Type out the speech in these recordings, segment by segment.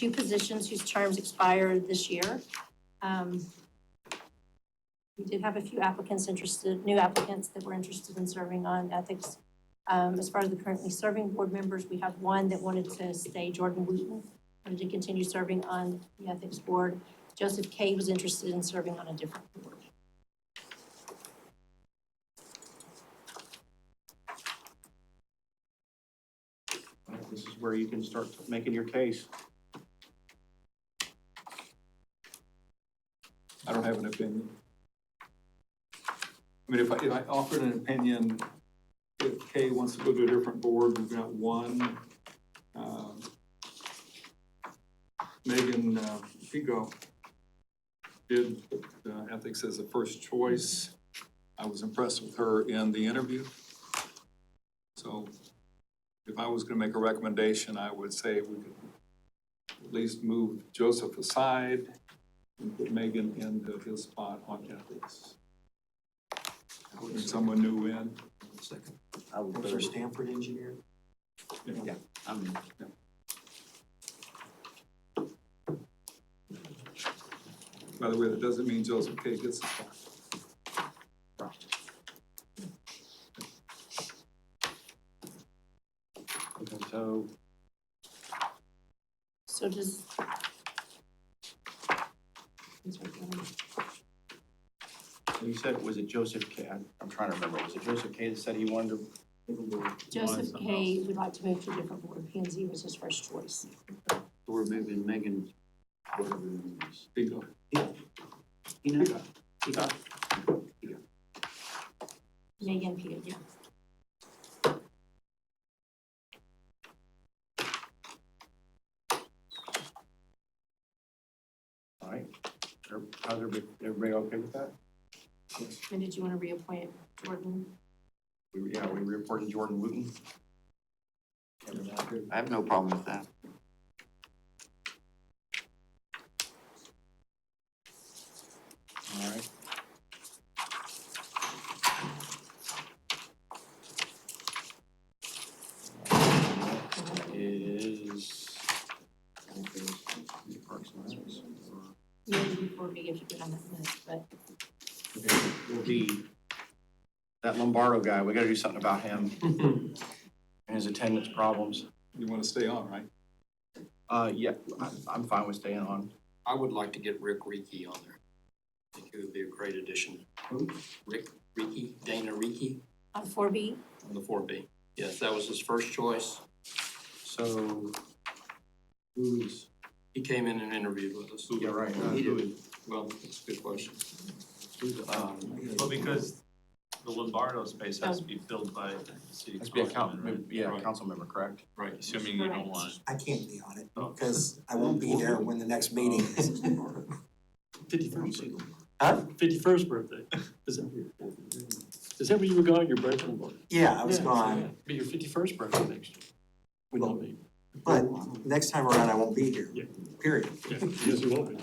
two positions whose terms expire this year. Um, We did have a few applicants interested, new applicants that were interested in serving on ethics. Um, As far as the currently serving board members, we have one that wanted to stay, Jordan Wooten, wanted to continue serving on the ethics board. Joseph Kay was interested in serving on a different board. Right, This is where you can start making your case. I don't have an opinion. I mean, if I, if I offered an opinion, if Kay wants to go to a different board, we've got one. um, Megan uh, Pigo did uh, ethics as a first choice. I was impressed with her in the interview. So if I was gonna make a recommendation, I would say we could at least move Joseph aside and put Megan in the- his spot on ethics. Putting someone new in. Second. I would Was there third. Stanford engineer? Yeah. Yeah, I'm, By the way, that doesn't mean Joseph K. gets the spot. Okay, So So does. you said, was it Joseph K? I'm, I'm trying to remember. Was it Joseph K that said he wanted to? Joseph Kay would like to move to a different board. P and Z was his first choice. We're moving Megan, whatever her name is. Pigo. You know, you got Megan Peter, yeah. All right. Are- How's everybody, everybody okay with that? And did you want to reappoint Jordan? We, yeah, we reported Jordan Wooten. I have no problem with that. All right. Is. Parks and Recs, or- Maybe before we get to get on that list, but will be that Lombardo guy. We got to do something about him Mm-hmm. and his attendance problems. You want to stay on, right? Uh, yeah, I- I'm fine with staying on. I would like to get Rick Reiki on there. I think he would be a great addition. Rick Reiki, Dana Reiki on um, four B, on the four B. Yes, that was his first choice. So who's, He came in and interviewed with us. yeah, right. uh, He who did. is- Well, that's a good question. who's, um, Well, because the Lombardo space has to be filled by the city That's be a councilman, right? council, yeah, Right. council member, correct? Right. Assuming you Correct. don't want. I can't be on it Oh. because I won't be there when the next meeting is. Fifty-first, Huh? fifty-first birthday, is that, is that where you were going, your birthday? was? Yeah, I was Yeah, gone, Be your fifty-first birthday next year. Would not be, but next time around I won't be here, Yeah. period. yeah, yes, it will be.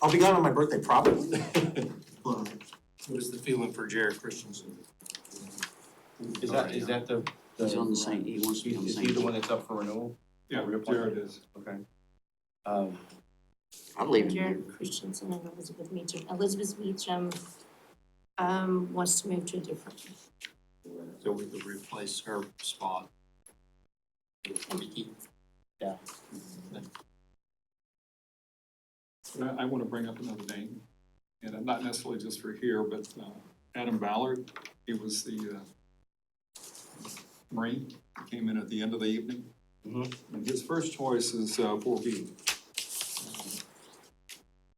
I'll be gone on my birthday probably, but What is the feeling for Jared Christensen? Is that, is that the? He's on the same, e- he wants to be on the Is same. he the one that's up for renewal? Yeah, Reappointment. Jared is. Okay. Um, I believe in Jared Christensen and Elizabeth Meacham. Elizabeth Meacham um, wants to move to a different. So we could replace her spot. with Reiki. But I, I want to bring up another name, and I'm not necessarily just for here, but uh, Adam Ballard, he was the uh, Marine, He came in at the end of the evening. Mhm. And his first choice is uh, four B.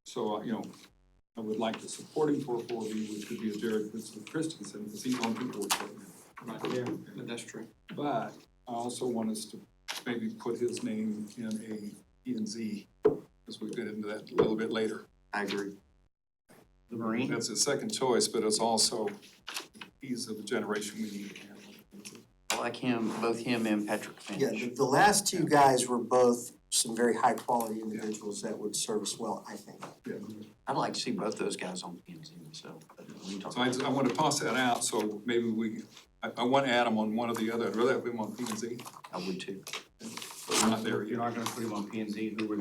So, uh, you know, I would like to support him for four B, which could be a Jared Christensen, because he's on the board. Right, Yeah. that's true. But I also want us to maybe put his name in a E and Z, as we get into that a little bit later. I agree. The Marine? That's his second choice, but it's also, he's of the generation we need. I like him, both him and Patrick yeah, Finch. the, the last two guys were both some very high quality individuals that would serve us well, I think. I'd like to see both those guys on P and Z myself, but we can talk. So I, just- I want to toss that out, so maybe we, I, I want Adam on one or the other, I'd rather have him on P and Z. I would too. We're not there yet. You're not gonna put him on P and Z, who we're